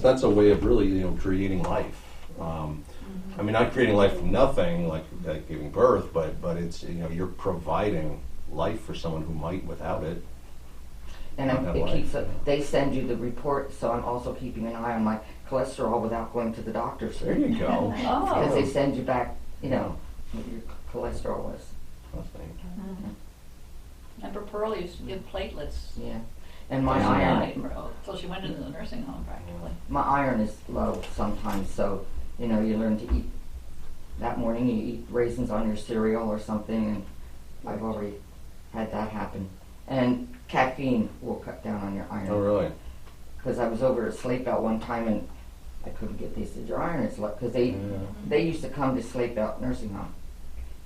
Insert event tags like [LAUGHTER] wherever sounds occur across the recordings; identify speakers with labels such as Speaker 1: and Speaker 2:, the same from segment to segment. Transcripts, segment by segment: Speaker 1: that's a way of really, you know, creating life. Um, I mean, not creating life from nothing, like, like giving birth, but, but it's, you know, you're providing life for someone who might without it.
Speaker 2: And I'm,
Speaker 1: Not
Speaker 2: it
Speaker 1: life.
Speaker 2: keeps, a- they send you the report, so I'm also keeping an eye on my cholesterol without going to the doctor.
Speaker 1: There you
Speaker 3: [LAUGHS]
Speaker 1: go.
Speaker 2: Because they
Speaker 1: Oh.
Speaker 2: send you back, you know, what your cholesterol was,
Speaker 1: Nothing.
Speaker 3: Remember Pearl used to give platelets.
Speaker 2: yeah. And my
Speaker 1: Yeah.
Speaker 2: iron,
Speaker 3: oh, Till she went into the nursing home practically.
Speaker 2: my iron is low sometimes, so, you know, you learn to eat, that morning you eat raisins on your cereal or something, and I've already had that happen. And caffeine will cut down on your iron.
Speaker 1: Oh, really?
Speaker 2: because I was over at Sleep Out one time and I couldn't get these to dry iron. It's like because they
Speaker 1: Yeah.
Speaker 2: they used to come to Sleep Out nursing home,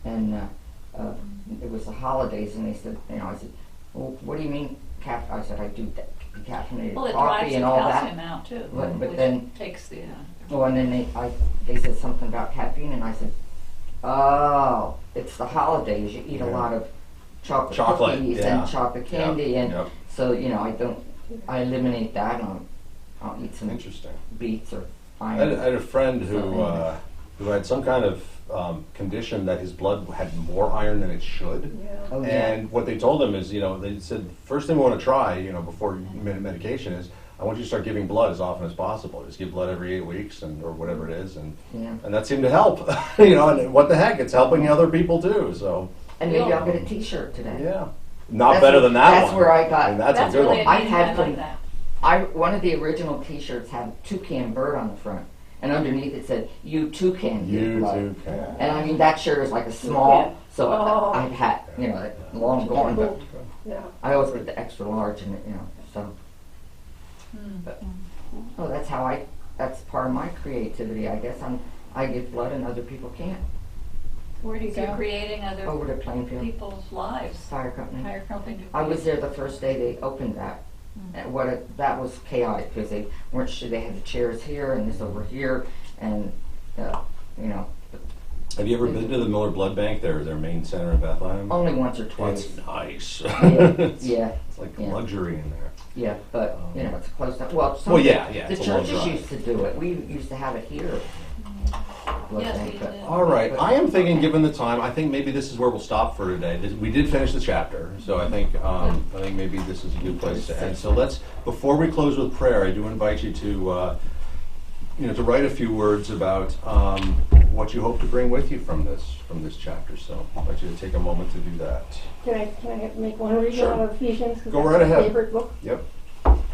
Speaker 2: and uh, uh, it was the holidays, and they said, you know, I said, well, what do you mean cap? I said I do de- decaffeinated
Speaker 3: Well, it drives
Speaker 2: coffee
Speaker 3: the
Speaker 2: and all
Speaker 3: calcium
Speaker 2: that.
Speaker 3: out too.
Speaker 2: But- but
Speaker 3: which
Speaker 2: then-
Speaker 3: Takes the, uh,
Speaker 2: Oh, and then they I they said something about caffeine, and I said, oh, it's the holidays. You eat
Speaker 1: Yeah.
Speaker 2: a lot of chocolate,
Speaker 1: Chocolate,
Speaker 2: cookies
Speaker 1: yeah.
Speaker 2: and chocolate
Speaker 1: Yep,
Speaker 2: candy, and
Speaker 1: yep.
Speaker 2: so you know I don't. I eliminate that, and I'll, I'll eat some
Speaker 1: Interesting.
Speaker 2: beets or
Speaker 1: I
Speaker 2: iron.
Speaker 1: had, I had a friend
Speaker 2: Something.
Speaker 1: who, uh, who had some kind of um, condition that his blood had more iron than it should.
Speaker 2: Oh, yeah.
Speaker 1: And what they told him is, you know, they said, first thing we want to try, you know, before you med- medication is, I want you to start giving blood as often as possible. Just give blood every eight weeks and or whatever it is, and
Speaker 2: Yeah.
Speaker 1: and that seemed to help. [LAUGHS] you know, and what the heck, it's helping other people too. So
Speaker 2: And maybe I'll get a T-shirt today.
Speaker 1: yeah, not
Speaker 2: That's
Speaker 1: better
Speaker 2: where-
Speaker 1: than that
Speaker 2: that's
Speaker 1: one.
Speaker 2: where I got-
Speaker 1: mean, that's,
Speaker 3: that's
Speaker 1: a good
Speaker 3: really,
Speaker 1: one.
Speaker 2: I
Speaker 3: I
Speaker 2: had
Speaker 3: had
Speaker 2: them-
Speaker 3: like that.
Speaker 2: I one of the original T-shirts had a toucan bird on the front, and underneath it said "You toucan." give
Speaker 1: You
Speaker 2: love."
Speaker 1: too can.
Speaker 2: And I mean that shirt is like a small,
Speaker 4: Yeah.
Speaker 2: so
Speaker 4: Oh.
Speaker 2: I, I had you know it- long gone, but
Speaker 4: Yeah.
Speaker 2: I always put the extra large in it, you know. So, but, oh, that's how I. That's part of my creativity, I guess. I'm I give blood and other people can't. Oh,
Speaker 5: Where do you
Speaker 3: You're
Speaker 5: go?
Speaker 3: creating
Speaker 2: Over
Speaker 3: other
Speaker 2: to Plainfield
Speaker 3: people's lives.
Speaker 2: Fire Company.
Speaker 3: Higher company.
Speaker 2: I was there the first day they opened that.
Speaker 3: Mm.
Speaker 2: And what a, that was chaotic because they weren't sure they had the chairs here and this over here and uh, you know
Speaker 1: Have you ever been to the Miller Blood Bank? Their their main center in Bethlehem.
Speaker 2: only once or twice.
Speaker 1: it's nice.
Speaker 2: yeah,
Speaker 1: it's,
Speaker 2: [LAUGHS] yeah,
Speaker 1: [LAUGHS] it's like
Speaker 2: yeah.
Speaker 1: luxury in there.
Speaker 2: yeah, but you know it's close. Down. Well, some
Speaker 1: Well, yeah, yeah.
Speaker 2: the
Speaker 1: it's a long
Speaker 2: churches
Speaker 1: drive.
Speaker 2: used to do it. We used to have it here. Blood
Speaker 3: Mm-hmm. Yes,
Speaker 2: bank,
Speaker 3: we
Speaker 2: but-
Speaker 3: did.
Speaker 1: All right. I am thinking, given the time, I think maybe this is where we'll stop for today. This, we did finish the chapter, so I think um, I think maybe this is a good place to end. So let's, before we close with prayer, I do invite you to, uh, you know, to write a few words about um, what you hope to bring with you from this from this chapter. So I'd like you to take a moment to do that.
Speaker 5: Can I, can I make one reading
Speaker 1: Sure.
Speaker 5: out of Ephesians? 'Cause
Speaker 1: Go
Speaker 5: that's
Speaker 1: right
Speaker 5: my
Speaker 1: ahead.
Speaker 5: Favorite book
Speaker 1: Yep.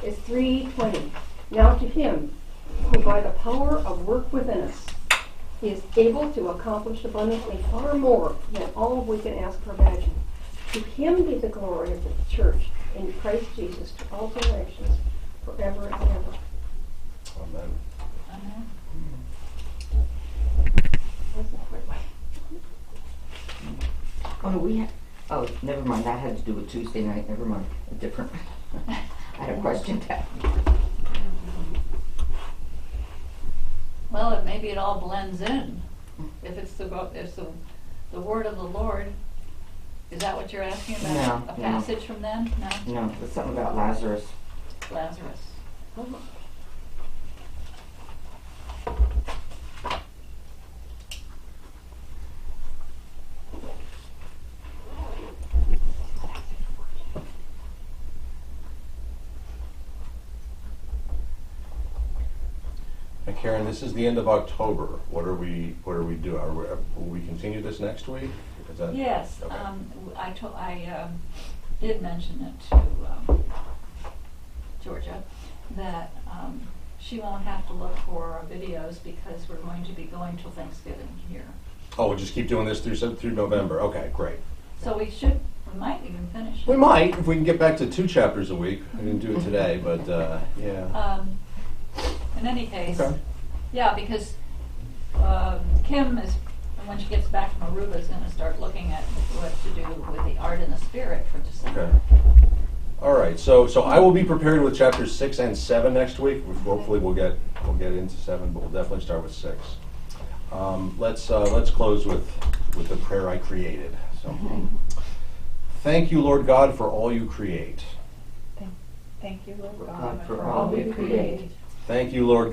Speaker 5: It's three twenty. Now to him who by the power of work within us is able to accomplish abundantly far more than all we can ask or imagine. To him be the glory of the church in Christ Jesus to all generations, forever and ever.
Speaker 1: Amen.
Speaker 5: That's not quite right.
Speaker 2: Oh, we had, oh, never mind. That had to do with Tuesday night. Never mind. A different. [LAUGHS] I had a question. That
Speaker 3: [LAUGHS] Well, it, maybe it all blends in. If it's the, vo- if the, the word of the Lord, is that what you're asking about?
Speaker 2: No,
Speaker 3: A
Speaker 2: no.
Speaker 3: passage from them? No,
Speaker 2: no, it was something about Lazarus.
Speaker 3: Lazarus.
Speaker 1: And Karen, this is the end of October. What are we What are we doing? Are we, will we continue this next week? Is that
Speaker 3: Yes,
Speaker 1: Okay.
Speaker 3: um, w- I told, I, um, did mention it to, um, Georgia, that, um, she won't have to look for our videos because we're going to be going till Thanksgiving here.
Speaker 1: Oh, we'll just keep doing this through Sep- through November. Okay, great.
Speaker 3: So we should, we might even finish.
Speaker 1: We
Speaker 3: it.
Speaker 1: might, if we can get back to two chapters a week. I didn't do it today, but uh, yeah.
Speaker 3: Um, in any case,
Speaker 1: Okay.
Speaker 3: yeah, because, um, Kim is, when she gets back from Aruba, is gonna start looking at what to do with the art and the spirit for December.
Speaker 1: Okay. All right. So so I will be prepared with chapters six and seven next week. We- Hopefully we'll get we'll get into seven, but we'll definitely start with six. Um, let's uh, let's close with with the prayer I created. So
Speaker 3: [LAUGHS]
Speaker 1: thank you, Lord God, for all you create.
Speaker 6: Thank you, Lord
Speaker 2: God,
Speaker 6: God,
Speaker 2: for
Speaker 6: for
Speaker 2: all
Speaker 6: all
Speaker 2: you
Speaker 6: you
Speaker 2: create.
Speaker 6: create.
Speaker 1: Thank you, Lord